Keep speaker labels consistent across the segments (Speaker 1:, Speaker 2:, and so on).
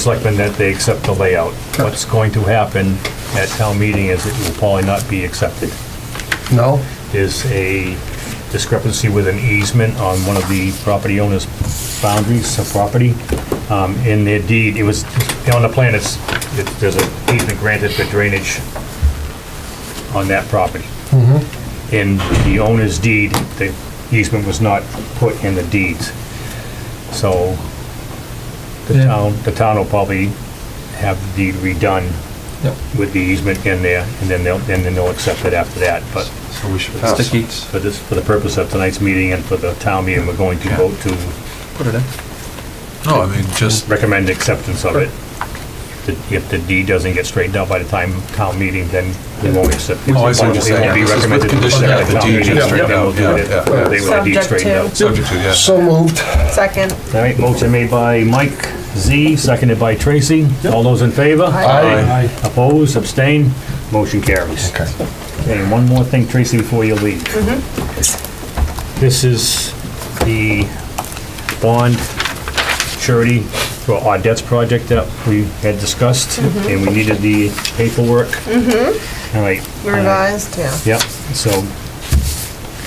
Speaker 1: Selectmen that they accept the layout. What's going to happen at town meeting is it will probably not be accepted.
Speaker 2: No?
Speaker 1: There's a discrepancy with an easement on one of the property owner's boundaries of property. Um, In their deed, it was, on the plan, it's, it- there's an easement granted for drainage on that property. In the owner's deed, the easement was not put in the deeds. So the
Speaker 2: Yeah.
Speaker 1: town, the town will probably have the deed redone
Speaker 2: Yep.
Speaker 1: with the easement in there, and then they'll, and then they'll accept it after that, but
Speaker 3: So we should pass.
Speaker 4: Sticky.
Speaker 1: for this, for the purpose of tonight's meeting and for the town meeting, we're going to vote to
Speaker 4: Put it in.
Speaker 3: No, I mean, just,
Speaker 1: recommend acceptance of it. The- If the deed doesn't get straightened out by the time town meeting, then we won't accept. it.
Speaker 3: Oh, I see what you're saying.
Speaker 1: It won't be
Speaker 3: This is with
Speaker 1: recommended to
Speaker 3: condition
Speaker 1: accept
Speaker 3: that the
Speaker 1: at town
Speaker 3: deed
Speaker 1: meeting,
Speaker 3: gets
Speaker 1: then
Speaker 3: straightened
Speaker 1: we'll
Speaker 3: out,
Speaker 1: do
Speaker 3: yeah,
Speaker 1: it
Speaker 3: yeah.
Speaker 1: when They want the deed
Speaker 5: Subject
Speaker 1: straightened
Speaker 5: to-
Speaker 1: out.
Speaker 3: subject to, yeah.
Speaker 2: So moved.
Speaker 5: Second.
Speaker 1: All right, motion made by Mike Z, seconded by Tracy. All those in favor?
Speaker 3: Aye.
Speaker 1: Opposed, abstain, motion carries.
Speaker 2: Okay.
Speaker 1: Okay, and one more thing, Tracy, before you leave.
Speaker 3: Mm-hmm.
Speaker 1: This is the bond surety for our debts project that we had discussed,
Speaker 3: Mm-hmm.
Speaker 1: and we needed the paperwork. All right.
Speaker 5: Revised, yeah.
Speaker 1: Yep, so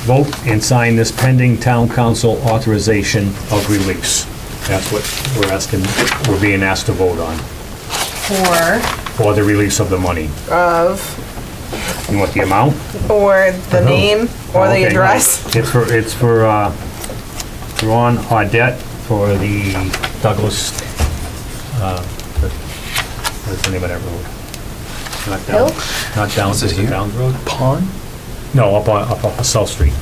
Speaker 1: vote and sign this pending town council authorization of release. That's what we're asking, we're being asked to vote on,
Speaker 5: For,
Speaker 1: for the release of the money.
Speaker 5: of,
Speaker 1: You want the amount?
Speaker 5: or the name, or
Speaker 1: Okay,
Speaker 5: the
Speaker 1: no.
Speaker 5: address.
Speaker 1: It's for, it's for uh, Ron Audette for the Douglas, uh, what's the name of that road? Not down,
Speaker 5: Hill?
Speaker 1: not down, is
Speaker 3: it
Speaker 1: it
Speaker 3: here?
Speaker 1: down road?
Speaker 3: Pond?
Speaker 1: No, up on, up on South Street.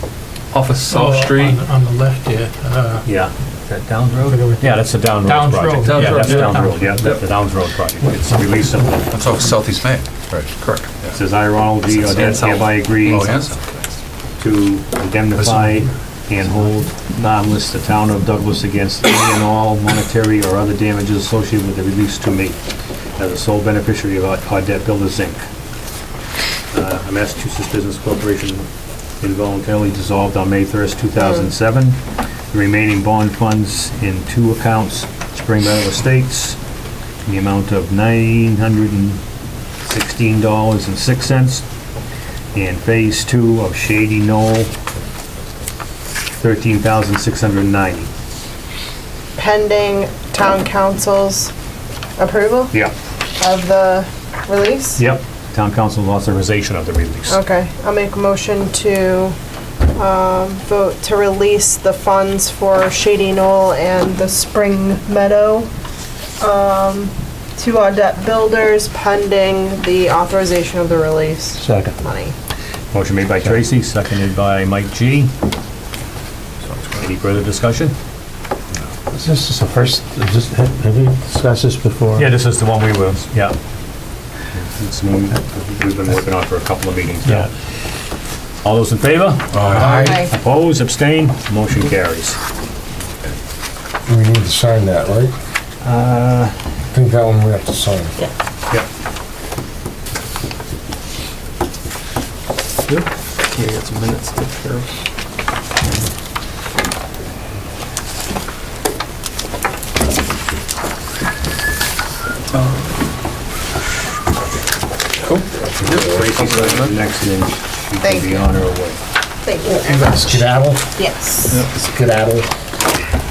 Speaker 4: Off of
Speaker 6: Oh,
Speaker 4: South Street.
Speaker 6: on- On the left, yeah. Uh,
Speaker 1: Yeah. Is that Downs Road? Yeah, that's the Down Road
Speaker 6: Downs
Speaker 1: project.
Speaker 6: Road.
Speaker 4: Downs
Speaker 1: Yeah,
Speaker 4: Road,
Speaker 1: that's
Speaker 4: yeah.
Speaker 1: Downs Road, yeah, that's the Downs Road project. It's a release of, it
Speaker 3: That's off Southeast Main. Right, correct. yeah.
Speaker 1: says I, Ronald D. Audette, hereby agree
Speaker 3: Oh, yes?
Speaker 1: to indemnify and hold harmless the town of Douglas against any and all monetary or other damages associated with the release to me as a sole beneficiary of Audette Builders Inc. Uh, A Massachusetts Business Corporation involuntarily dissolved on May 1st, 2007. The remaining bond funds in two accounts, Spring Meadow Estates, in the amount of $916.06 and Phase Two of Shady Knoll, thirteen thousand six hundred ninety.
Speaker 5: Pending town council's approval
Speaker 1: Yep.
Speaker 5: of the release?
Speaker 1: Yep, town council authorization of the release.
Speaker 5: Okay, I'll make a motion to, um, vote to release the funds for Shady Knoll and the Spring Meadow, um, to Audette Builders pending the authorization of the release
Speaker 1: Second.
Speaker 5: money.
Speaker 1: Motion made by Tracy, seconded by Mike G. Any further discussion?
Speaker 7: This is the first, is this- have have we discussed this before?
Speaker 1: Yeah, this is the one we will, yeah. It's the one we've been working on for a couple of meetings now. All those in favor?
Speaker 5: Aye.
Speaker 1: Opposed, abstained, motion carries.
Speaker 2: We need to sign that, right? Uh. I think that one we have to sign.
Speaker 1: Yep.
Speaker 4: Yeah, you got some minutes to take care of.
Speaker 1: Next, and then she
Speaker 5: Thank
Speaker 1: can be
Speaker 5: you.
Speaker 1: on her way.
Speaker 5: Thank you very much.
Speaker 2: Skedaddle,
Speaker 5: Yes.
Speaker 2: skedaddle.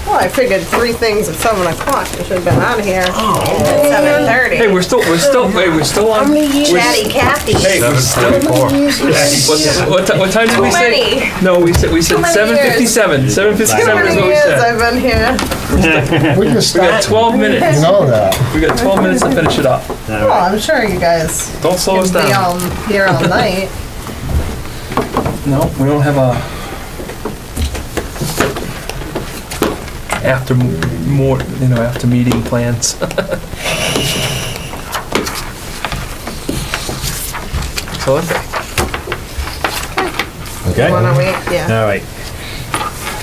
Speaker 5: Well, I figured three things at seven o'clock. You should have been on here at seven thirty.
Speaker 4: Oh. Hey, we're still, we're still, wait, we're still on.
Speaker 5: Chatty Kathy.
Speaker 4: Hey, we're still. What, what ti- what time did we say? No, we said, we said
Speaker 5: many
Speaker 4: seven fifty-seven. Seven
Speaker 5: How
Speaker 4: fifty-seven is
Speaker 5: many
Speaker 4: what we
Speaker 5: years
Speaker 4: said.
Speaker 5: I've been here?
Speaker 2: We just
Speaker 4: We got
Speaker 2: started,
Speaker 4: twelve minutes.
Speaker 2: you know that.
Speaker 4: We got twelve minutes to finish it up.
Speaker 5: Well, I'm sure you guys
Speaker 4: Don't slow us
Speaker 5: can be
Speaker 4: down.
Speaker 5: all here all night.
Speaker 4: No, we don't have a. After m- more, you know, after meeting plans. So let's.
Speaker 1: Okay?
Speaker 5: Wanna wait? Yeah.
Speaker 1: All right,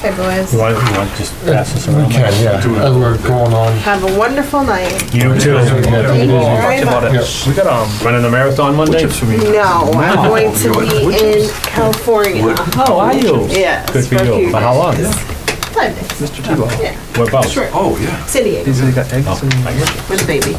Speaker 5: Okay, boys.
Speaker 1: you want, you want to just pass this around?
Speaker 2: We can, yeah, as we're going on.
Speaker 5: Have a wonderful night.
Speaker 1: You too.
Speaker 4: We
Speaker 5: very
Speaker 4: talked about
Speaker 2: much.
Speaker 4: it. We got, um,
Speaker 1: Running the marathon Monday?
Speaker 5: No, I'm going to be in California.
Speaker 1: How are you?
Speaker 5: Yes.
Speaker 1: Good for you.
Speaker 5: a few
Speaker 1: For how long?
Speaker 5: days. Five days,
Speaker 1: Mr. Tebow.
Speaker 5: yeah,
Speaker 4: What about?
Speaker 5: sure.
Speaker 8: Oh, yeah.
Speaker 5: City,
Speaker 1: He's got eggs
Speaker 4: Oh,
Speaker 1: and.
Speaker 4: I guess.
Speaker 5: with a baby.